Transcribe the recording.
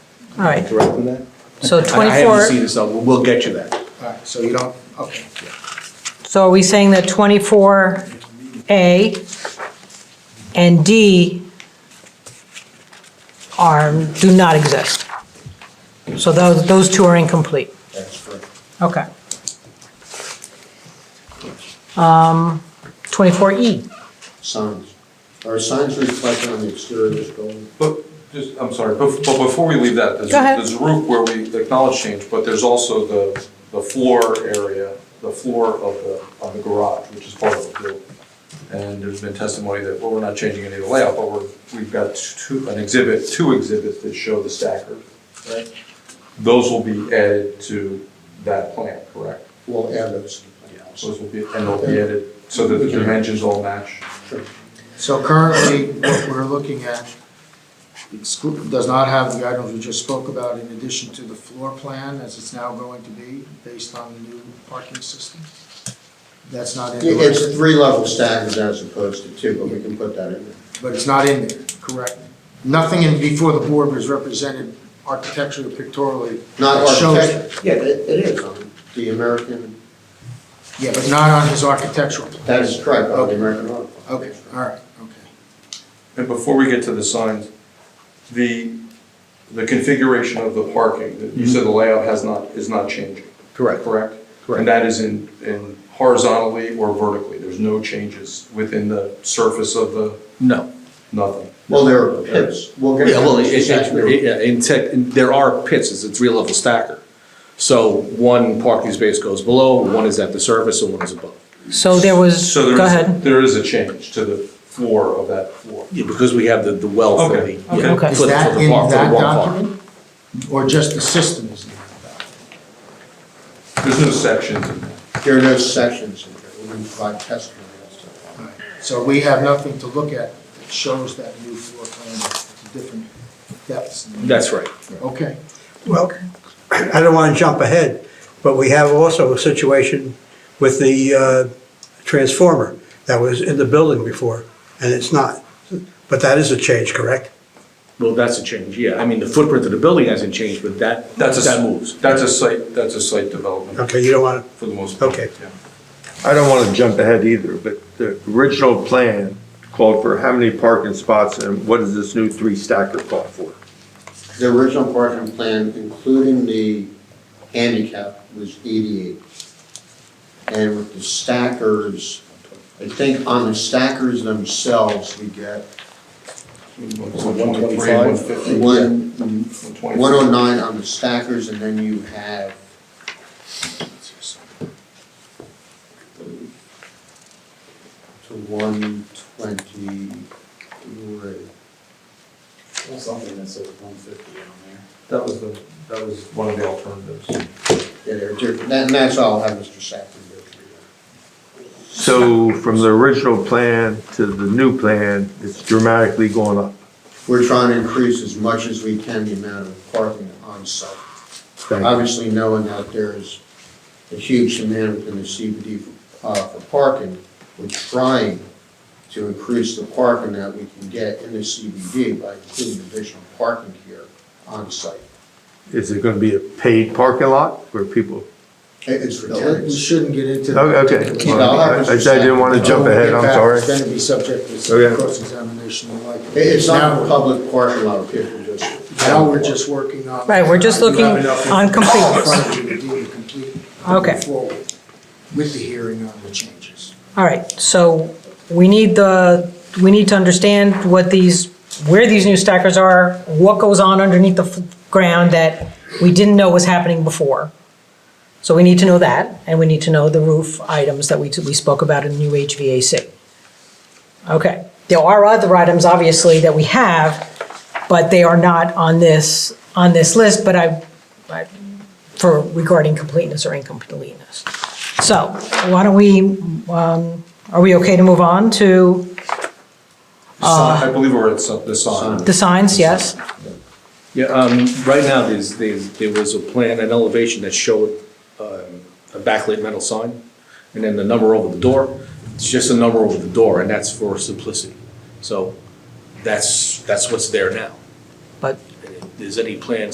All right, correct on that? so I- I haven't 24, seen it, so we'll- we'll get you that. All right, so you don't, okay. so are we saying that 24A and D are, do not exist? So those, those two are incomplete? That's correct. Okay. Um, Um, 24E, Signs. Are signs reflected on the exterior of this building? But, just, I'm sorry, bef- but before we leave that, there's, Go ahead. there's a roof where we acknowledge change, but there's also the, the floor area, the floor of the, on the garage, which is part of the building. And there's been testimony that, well, we're not changing any of the layout, but we're, we've got two, an exhibit, two exhibits that show the stacker. Right. Those will be added to that plan, correct? We'll add those. to the plan also. Those will be, and they'll be added so that the dimensions all match. So currently, what we're looking at exclu- does not have the items we just spoke about in addition to the floor plan as it's now going to be based on the new parking system. That's not in the It's record, three level stackers as opposed to two, but we can put that in there. but it's not in there, correct? Nothing in, before the board was represented architecturally, pictorially. Not that shows- architect, yeah, it it is on the American, Yeah, but not on his architectural plan. that is correct, on the American Art. Okay, all right, okay. And before we get to the signs, the, the configuration of the parking, that you said the layout has not, is not changing. Correct. Correct? Correct. And that is in, in horizontally or vertically, there's no changes within the surface of the, No. nothing. Well, there are pits. We'll get. Yeah, well, it, it- it- Exactly. yeah, in tech, there are pits, it's a three-level stacker. So one parking space goes below, one is at the surface, and one is above. so there was, So there go is- ahead. There is a change to the floor of that floor. Yeah, because we have the, the well for the. Okay, okay. yeah, Okay. for Is the- for the that in bar- for the that bar park. document? Or just the system is in that document? There's no sections in that. There are no sections in there. We can provide testimony as to that. All right. So we have nothing to look at that shows that new floor plan, the different depths. and- That's right. Okay, Well, I don't want to jump ahead, but we have also a situation with the uh, transformer that was in the building before, and it's not. But that is a change, correct? Well, that's a change, yeah. I mean, the footprint of the building hasn't changed, but that, That's a- that moves. That's a site, that's a site development Okay, you don't want to, for the most part. Okay. yeah. I don't want to jump ahead either, but the original plan called for how many parking spots and what does this new three stacker call for? The original parking plan, including the handicap, was 88. And with the stackers, I think on the stackers themselves, we get So 123, 150, one, 125. 109 on the stackers, and then you have, to 123. Something that says one fifty on there. That was the, that was one of the alternatives. Yeah, they're different, and that's all I'll have Mr. Saffron go through. So from the original plan to the new plan, it's dramatically going up. We're trying to increase as much as we can the amount of parking on site. Thank you. Obviously, knowing that there is a huge demand within the CBD for, uh, for parking, we're trying to increase the parking that we can get in the CBD by including additional parking here on site. Is it going to be a paid parking lot where people? It- It's for No, we we tenants. shouldn't get into. Okay, okay. Keep it all up, Mr. I said I didn't want to jump ahead, I'm It's sorry. going to be subject to Okay. cross-examination and like. It- It's not Now- a public parking lot, people just. Now we're just working on. Right, we're just I do have looking enough on completeness. in front of you to do a complete- to Okay. move forward With the hearing on the changes. All right, so we need the, we need to understand what these, where these new stackers are, what goes on underneath the f- ground that we didn't know was happening before. So we need to know that, and we need to know the roof items that we, we spoke about in new HVAC. Okay, there are other items, obviously, that we have, but they are not on this, on this list, but I, I- for regarding completeness or incompleteness. So why don't we, um, are we okay to move on to The sign- I believe we're at some- the sign. the signs? Yes? Yeah, um, right now, there's, there's, there was a plan, an elevation that showed, um, a backlit metal sign, and then the number over the door, it's just a number over the door, and that's for simplicity. So, that's, that's what's there now. But And if there's any plans